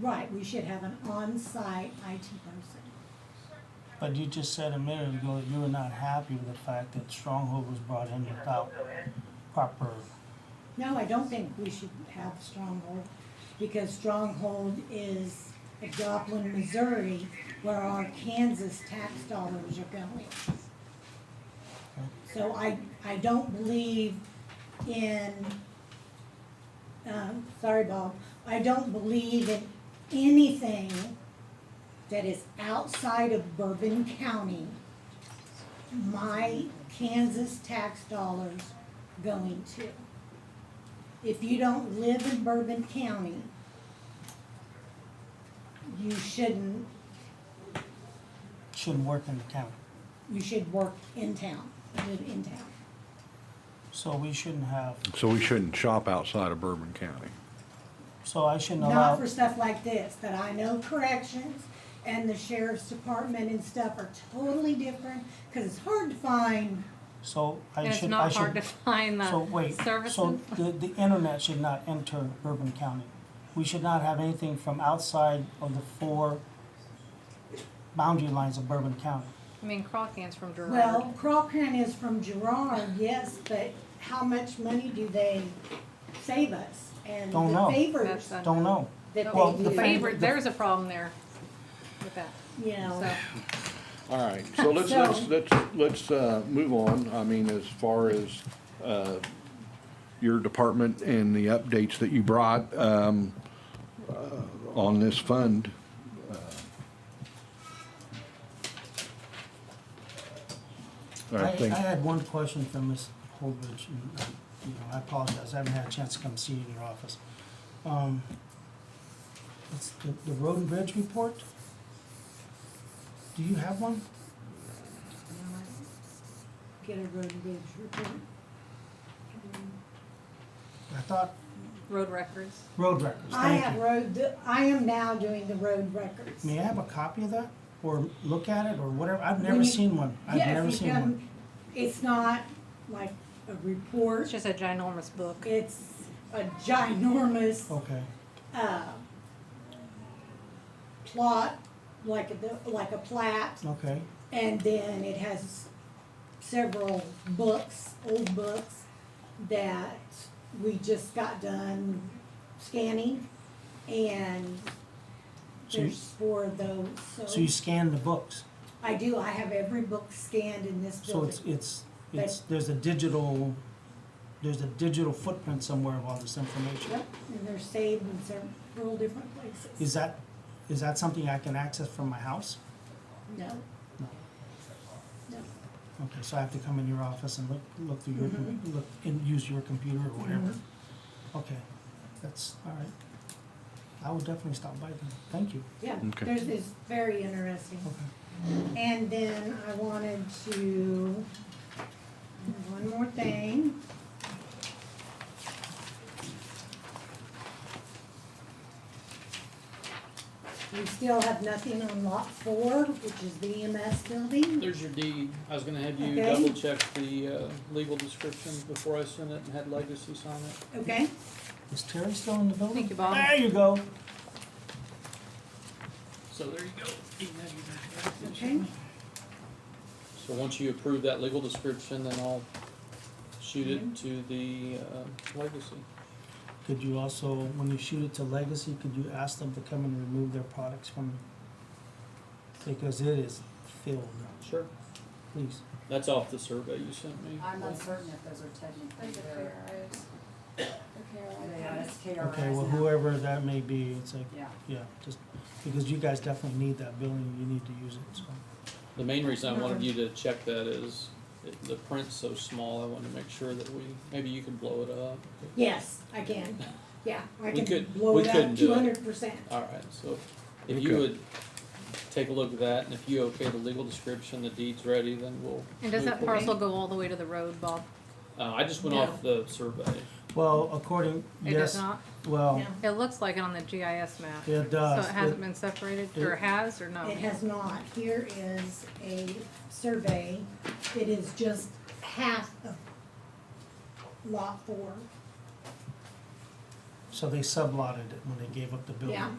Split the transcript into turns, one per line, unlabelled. Right, we should have an on-site IT person.
But you just said a minute ago that you were not happy with the fact that Stronghold was brought in without proper,
No, I don't think we should have Stronghold, because Stronghold is Joplin, Missouri, where our Kansas tax dollars are going. So I, I don't believe in, um, sorry, Bob, I don't believe in anything that is outside of Bourbon County. My Kansas tax dollars going to. If you don't live in Bourbon County, you shouldn't,
shouldn't work in the county.
you should work in town, live in town.
So we shouldn't have,
So we shouldn't shop outside of Bourbon County.
so I shouldn't
Not
allow,
for stuff like this, that I know corrections and the sheriff's department and stuff are totally different, cause it's hard to find,
so I should, I should.
And it's not hard to find
So
the
wait,
services.
so the, the internet should not enter Bourbon County. We should not have anything from outside of the four boundary lines of Bourbon County.
I mean, Crawcan's from Gerard.
well, Crawford is from Gerard, yes, but how much money do they save us? And
Don't
the
know.
favors
That's
that
un-
Don't know.
they
Well,
do,
the
The favorite,
the-
there's a problem there with that,
you know.
so.
All right, so let's, let's, let's, let's, uh, move on. I mean, as far as, uh, your department and the updates that you brought, um, uh, on this fund. uh,
I,
I
I
think,
had one question for Ms. Holdridge, and, uh, you know, I apologize, I haven't had a chance to come see you in your office. Um, it's the, the road and bridge report? Do you have one?
Get a road and bridge report.
I thought
Road records.
road records,
I
thank
have
you.
road, I am now doing the road records.
May I have a copy of that, or look at it, or whatever, I've
When
never
you-
seen one, I've
Yeah, if
never
you
seen
come-
one.
It's not like a
It's
report,
just a ginormous book.
it's a ginormous,
Okay,
uh, plot, like a, like a plat,
okay,
and then it has several books, old books, that we just got done scanning, and
So you-
there's four of those,
so you scan the books,
I do, I have every book scanned in this
so
building.
it's, it's, it's, there's a digital, there's a digital footprint somewhere of all this information.
Yep, and they're saved in several different places.
Is that, is that something I can access from my house?
No.
No.
No.
Okay, so I have to come in your office and look, look through your,
Mm-hmm.
Mhm.
look, and use your computer or whatever? Okay, that's, all right. I will definitely stop by then, thank you.
Yeah,
Okay.
there's, it's very interesting.
Okay.
And then I wanted to, one more thing. We still have nothing on lot four, which is the EMS building.
There's your deed. I was gonna have you
Okay.
double check the, uh, legal description before I sent it and had Legacy sign it.
Okay,
Is Terry still in the building?
Thank you, Bob.
There you go.
So there you go. You can have your back.
okay.
So once you approve that legal description, then I'll shoot
Mm-hmm.
it to the, uh, Legacy.
Could you also, when you shoot it to Legacy, could you ask them to come and remove their products from? Because it is filled,
Sure.
please.
That's off the survey you sent me.
I'm uncertain if those are technically their, they are, it's KRIs
Okay, well,
now.
whoever that may be, it's like,
Yeah,
Yeah, just, because you guys definitely need that building, you need to use it, so.
The main reason I wanted you to check that is it- the print's so small, I wanted to make sure that we, maybe you could blow it up.
Yes, I can. Yeah, I
We
can
could-
blow
we
it
couldn't
up
do
two
it. Oh.
hundred percent.
All right, so if you
Okay.
would take a look at that, and if you okay the legal description, the deed's ready, then we'll.
And does
move
that
forward.
parcel go all the way to the road, Bob?
Uh, I just went
No.
off the survey.
Well, according,
It
yes,
does not?
well,
No.
It looks like it on the GIS map.
it
So
does.
it hasn't
It-
been separated,
it-
or has, or no?
It has not. Here is a survey. It is just half of lot four.
So they sublotted it when they gave up the building.
Yeah.